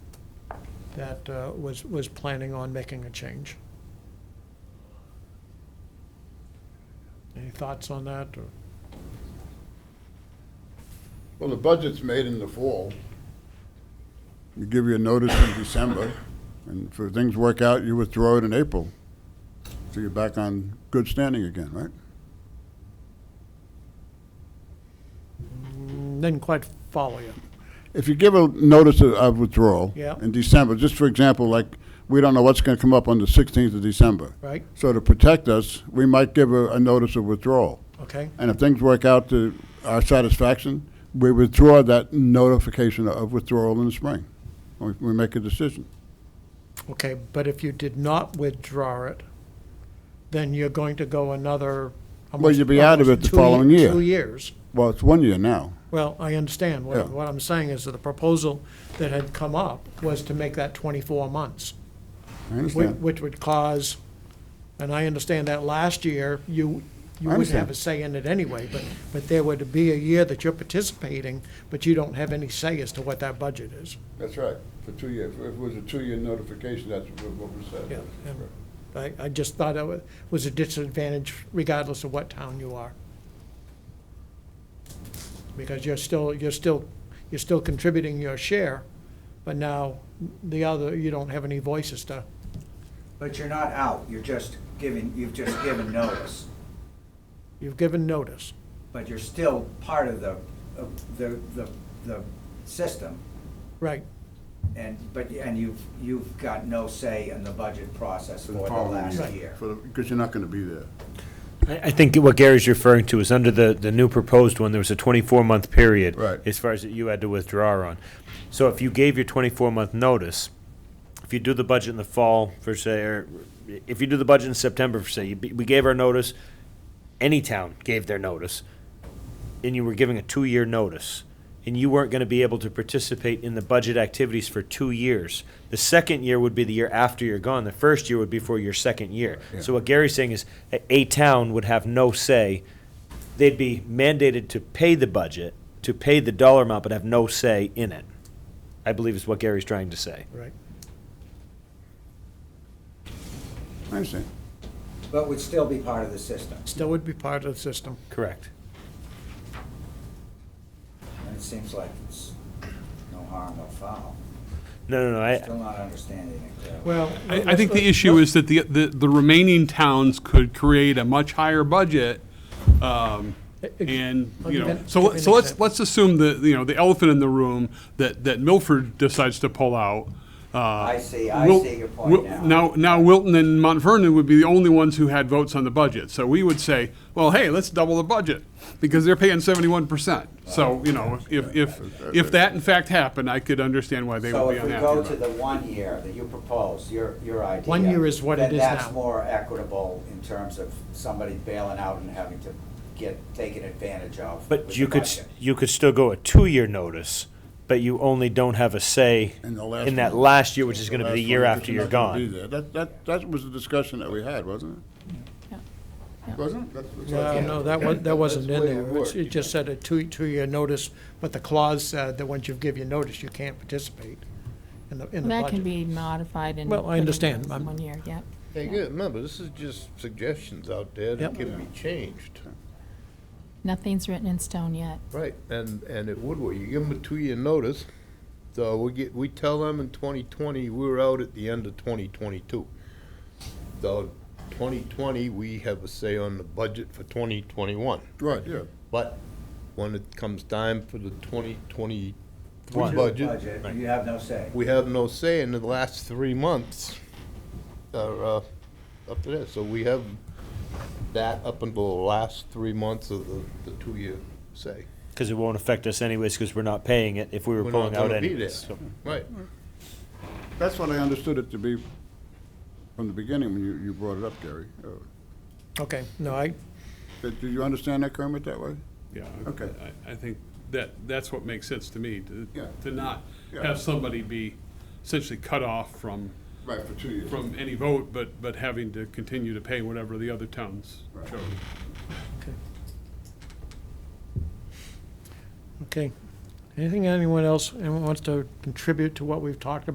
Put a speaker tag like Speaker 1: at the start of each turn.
Speaker 1: that uh, was, was planning on making a change. Any thoughts on that? or-
Speaker 2: Well, the budget's made in the fall. We give you a notice in December, and if things work out, you withdraw it in April. So you're back on good standing again, right?
Speaker 1: Mm, Didn't quite follow you.
Speaker 2: If you give a notice of- of withdrawal
Speaker 1: Yeah.
Speaker 2: in December, just for example, like, we don't know what's going to come up on the 16th of December.
Speaker 1: Right.
Speaker 2: So to protect us, we might give a, a notice of withdrawal.
Speaker 1: Okay,
Speaker 2: And if things work out to our satisfaction, we withdraw that notification of withdrawal in the spring. We, we make a decision.
Speaker 1: okay, but if you did not withdraw it, then you're going to go another. how
Speaker 2: Well,
Speaker 1: much-
Speaker 2: you'll be out of it the
Speaker 1: two ye-
Speaker 2: following year.
Speaker 1: Two years.
Speaker 2: Well, it's one year now.
Speaker 1: Well, I understand.
Speaker 2: Yeah.
Speaker 1: What, what I'm saying is that the proposal that had come up was to make that twenty-four months.
Speaker 2: I
Speaker 1: Which,
Speaker 2: understand.
Speaker 1: which would cause, and I understand that last year, you, you
Speaker 2: I
Speaker 1: wouldn't have
Speaker 2: understand.
Speaker 1: a say in it anyway, but, but there would be a year that you're participating, but you don't have any say as to what that budget is.
Speaker 2: That's right, for two years. If it was a two-year notification, that's what we
Speaker 1: Yeah, and I, I just thought it wa- was a disadvantage regardless of what town you are. Because you're still, you're still, you're still contributing your share, but now the other, you don't have any voice as to,
Speaker 3: But you're not out, you're just giving, you've just given notice,
Speaker 1: you've given notice.
Speaker 3: but you're still part of the, of the, the, the system.
Speaker 1: Right,
Speaker 3: And, but, and you've, you've got no say in the budget process for the last year.
Speaker 2: Because you're not going to be there.
Speaker 4: I, I think what Gary's referring to is under the, the new proposed one, there was a 24-month period.
Speaker 2: Right.
Speaker 4: As far as that you had to withdraw on. So if you gave your 24-month notice, if you do the budget in the fall for say, or if you do the budget in September for say, you- we gave our notice, any town gave their notice, and you were giving a two-year notice, and you weren't going to be able to participate in the budget activities for two years. The second year would be the year after you're gone. The first year would be for your second year. So what Gary's saying is, a, a town would have no say. They'd be mandated to pay the budget, to pay the dollar amount, but have no say in it. I believe is what Gary's trying to say.
Speaker 1: right.
Speaker 2: I understand.
Speaker 3: But would still be part of the system,
Speaker 1: Still would be part of the system.
Speaker 4: Correct.
Speaker 3: and it seems like it's no harm, no foul.
Speaker 4: No, no, no. I,
Speaker 3: Still not understanding it clearly.
Speaker 1: Well.
Speaker 5: I, I think the issue is that the, the, the remaining towns could create a much higher budget. um,
Speaker 1: uh,
Speaker 5: And, you know, so, let- so let's, let's assume the, you know, the elephant in the room that, that Milford decides to pull out. I
Speaker 3: see- I see your point now.
Speaker 5: Now, now Wilton and Mount Vernon would be the only ones who had votes on the budget. So we would say, well, hey, let's double the budget because they're paying seventy-one percent. So, you know, if, if, if that in fact happened, I could understand why they
Speaker 3: So
Speaker 5: would be
Speaker 3: if we
Speaker 5: unhappy.
Speaker 3: go
Speaker 5: about
Speaker 3: to
Speaker 5: it.
Speaker 3: the one year that you propose, your, your idea.
Speaker 1: One year is what it
Speaker 3: then
Speaker 1: is
Speaker 3: that's
Speaker 1: now.
Speaker 3: more equitable in terms of somebody bailing out and having to get, taken advantage of. with
Speaker 4: But you
Speaker 3: the
Speaker 4: could, s-
Speaker 3: budget.
Speaker 4: you could still go a two-year notice, but you only don't have a say
Speaker 2: In the last
Speaker 4: in that
Speaker 2: one.
Speaker 4: last year, which is gonna be
Speaker 2: That's
Speaker 4: the
Speaker 2: why
Speaker 4: year
Speaker 2: you're
Speaker 4: after
Speaker 2: just
Speaker 4: you're
Speaker 2: not gonna be
Speaker 4: gone.
Speaker 2: there. That, that, that was the discussion that we had, wasn't
Speaker 6: Yeah.
Speaker 2: it? Wasn't it? That's- that's
Speaker 1: No,
Speaker 2: right.
Speaker 1: no, that was, that wasn't in
Speaker 2: That's the way it
Speaker 1: there. It's-
Speaker 2: worked.
Speaker 1: It just said a two, two-year notice, but the clause said that once you give your notice, you can't participate in the, in the
Speaker 6: That
Speaker 1: budget.
Speaker 6: can be modified and.
Speaker 1: Well, I
Speaker 6: put in
Speaker 1: understand.
Speaker 6: as
Speaker 1: I'm-
Speaker 6: One year, yep.
Speaker 7: Hey, good, remember, this is just suggestions out there
Speaker 1: Yep.
Speaker 7: that can be changed.
Speaker 6: Nothing's written in stone yet.
Speaker 7: Right, and, and it would, work. you give them a two-year notice, so we get, we tell them in twenty twenty, we we're out at the end of twenty twenty-two. So, twenty twenty, we have a say on the budget for twenty twenty-one,
Speaker 2: Right, yeah.
Speaker 7: but when it comes time for the twenty twenty-three
Speaker 4: One.
Speaker 7: budget,
Speaker 3: Budget, you have no say.
Speaker 7: we have no say in the last three months, are, uh, up to this, so we have that up until the last three months of the, the two-year say.
Speaker 4: Because it won't affect us anyways, because we're not paying it if we were
Speaker 7: We're
Speaker 4: pulling
Speaker 7: not
Speaker 4: out
Speaker 7: gonna be there,
Speaker 4: anyways. so-
Speaker 7: right.
Speaker 2: That's what I understood it to be from the beginning when you, you brought it up, Gary. Uh,
Speaker 1: Okay, no, I,
Speaker 2: Did did you understand that, Kermit, that way?
Speaker 5: Yeah.
Speaker 2: Okay.
Speaker 5: I, I think that, that's what makes sense to me, to,
Speaker 2: Yeah.
Speaker 5: to not
Speaker 2: Yeah.
Speaker 5: have somebody be essentially cut off from,
Speaker 2: Right, for two years.
Speaker 5: from any vote, but, but having to continue to pay whatever the other towns
Speaker 2: Right.
Speaker 5: chose.
Speaker 1: okay. Anything anyone else, anyone wants to contribute to what we've talked about?